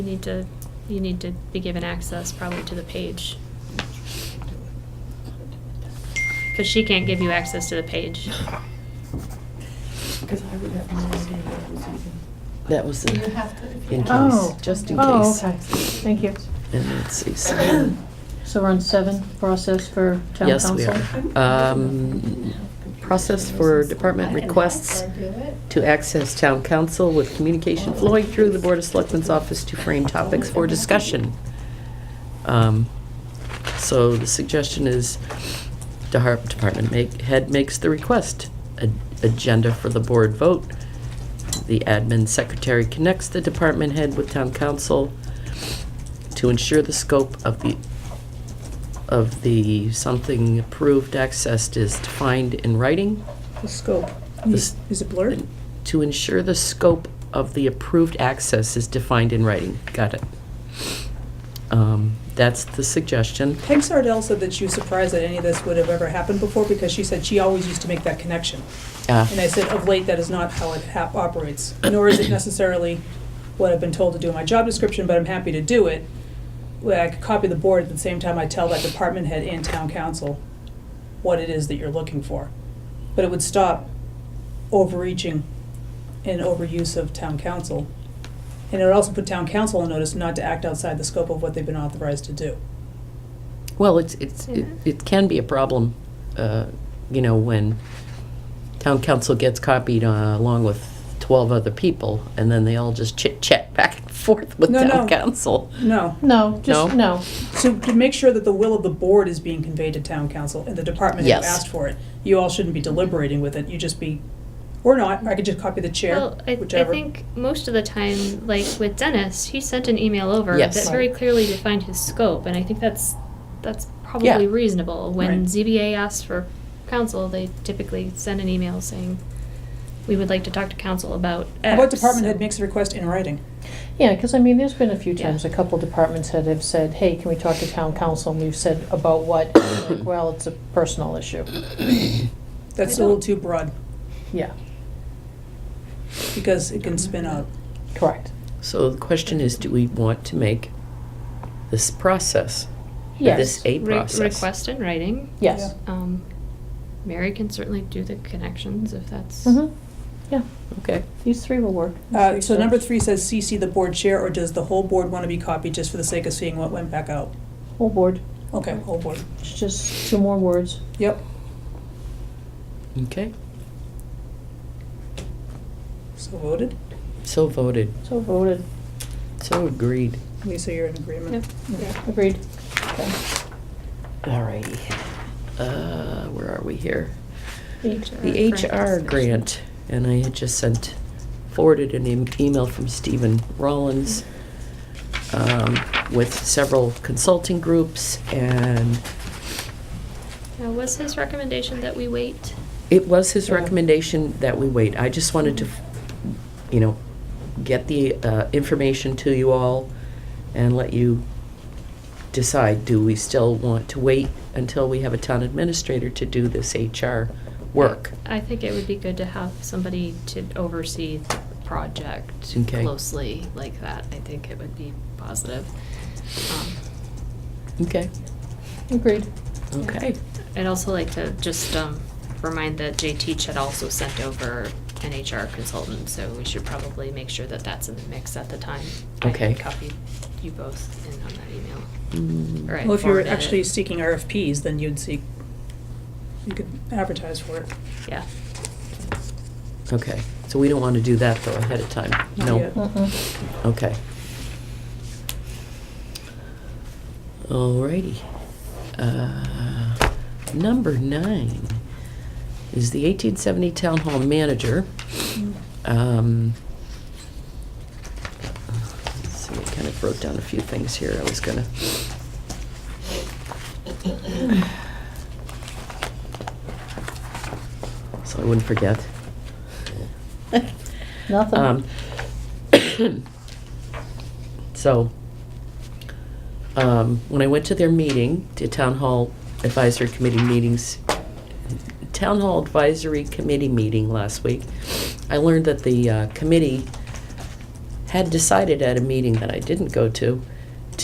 You need to, you need to be given access probably to the page, because she can't give you access to the page. Because I would have no idea what it was even. That was You in, have to. in case, Oh. just in Oh, case. okay, thank you. And let's see, so, So we're on seven, process for town council? Yes, we um, process for department requests to access town council with communication flowing through the Board of Selectmen's office to frame topics for discussion. Um, So the suggestion is, the har- department make, head makes the request, A- agenda for the board vote. The admin secretary connects the department head with town council to ensure the scope of the, of the something approved accessed is defined in writing. The scope, This- is is it blurred? To ensure the scope of the approved access is defined in writing. Got it. Um, That's the suggestion. Peg Sardell said that she was surprised that any of this would have ever happened before because she said she always used to make that connection. Uh, And I said, of late, that is not how it hap- operates, nor is it necessarily what I've been told to do in my job description, but I'm happy to do it. Well, I could copy the board at the same time I tell that department head and town council what it is that you're looking for. But it would stop overreaching and overuse of town council. And it would also put town council on notice not to act outside the scope of what they've been authorized to do. Well, it's, it's, it Mhm. it can be a problem, uh, you know, when town council gets copied uh, along with 12 other people, and then they all just chit-chat back and forth with No, town no. council. No, No, just, No? no. So to make sure that the will of the board is being conveyed to town council and the department who Yes. asked for it, you all shouldn't be deliberating with it, you just be, or not, I could just copy the chair, Well, I, I whichever. think most of the time, like with Dennis, he sent an email over Yes. that very clearly defined his scope, and I think that's, that's Yeah. probably reasonable. When Right. ZBA asks for counsel, they typically send an email saying, we would like to talk to council about X. What department head makes a request in writing? Yeah, because I mean, there's been a few Yeah. times, a couple departments that have said, hey, can we talk to town council? And we've said, about what? Like, Well, it's a personal issue. That's I a little don't- too broad, Yeah, because it can spin out. correct. So the question is, do we want to make this process, Yes, this a Re- process? Request in writing. yes. Um, Mary can certainly do the connections if that's. Mm-hmm, yeah, Okay, these three will work. These Uh, so number steps. three says CC the board chair, or does the whole board wanna be copied just for the sake of seeing what went back out? Whole board, Okay, whole board, it's just two more words. yep, okay, so voted, so voted, So voted, so agreed. Lisa, you're in agreement? Yep. agreed. Okay. All righty. Uh, where are we here? HR The grant HR discussion. grant, and I had just sent, forwarded an em- email from Stephen Rollins um, with several consulting groups, and Now, was his recommendation that we wait? it was his Yeah. recommendation that we wait. I just wanted to, you know, get the uh, information to you all and let you decide, do we still want to wait until we have a town administrator to do this HR work? I think it would be good to have somebody to oversee the project Okay. closely like that. I think it would be positive. Um, Okay, Agreed. okay. I'd also like to just um, remind that Jay Teach had also sent over an HR consultant, so we should probably make sure that that's in the mix at the time. I Okay. copied you both in on that email. Mm. All right. Well, if you were forwarded it. actually seeking RFPs, then you'd seek, you could advertise for it. Yeah. Okay, so we don't want to do that though ahead of time? Not No, yet. Mm-mm. okay. Alrighty. Uh, Number nine is the 1870 Town Hall Manager. Um, let's See, I kind of wrote down a few things here I was gonna. So I wouldn't forget. Nothing. Um, So, um, when I went to their meeting, to town hall advisory committee meetings, town hall advisory committee meeting last week, I learned that the uh, committee had decided at a meeting that I didn't go to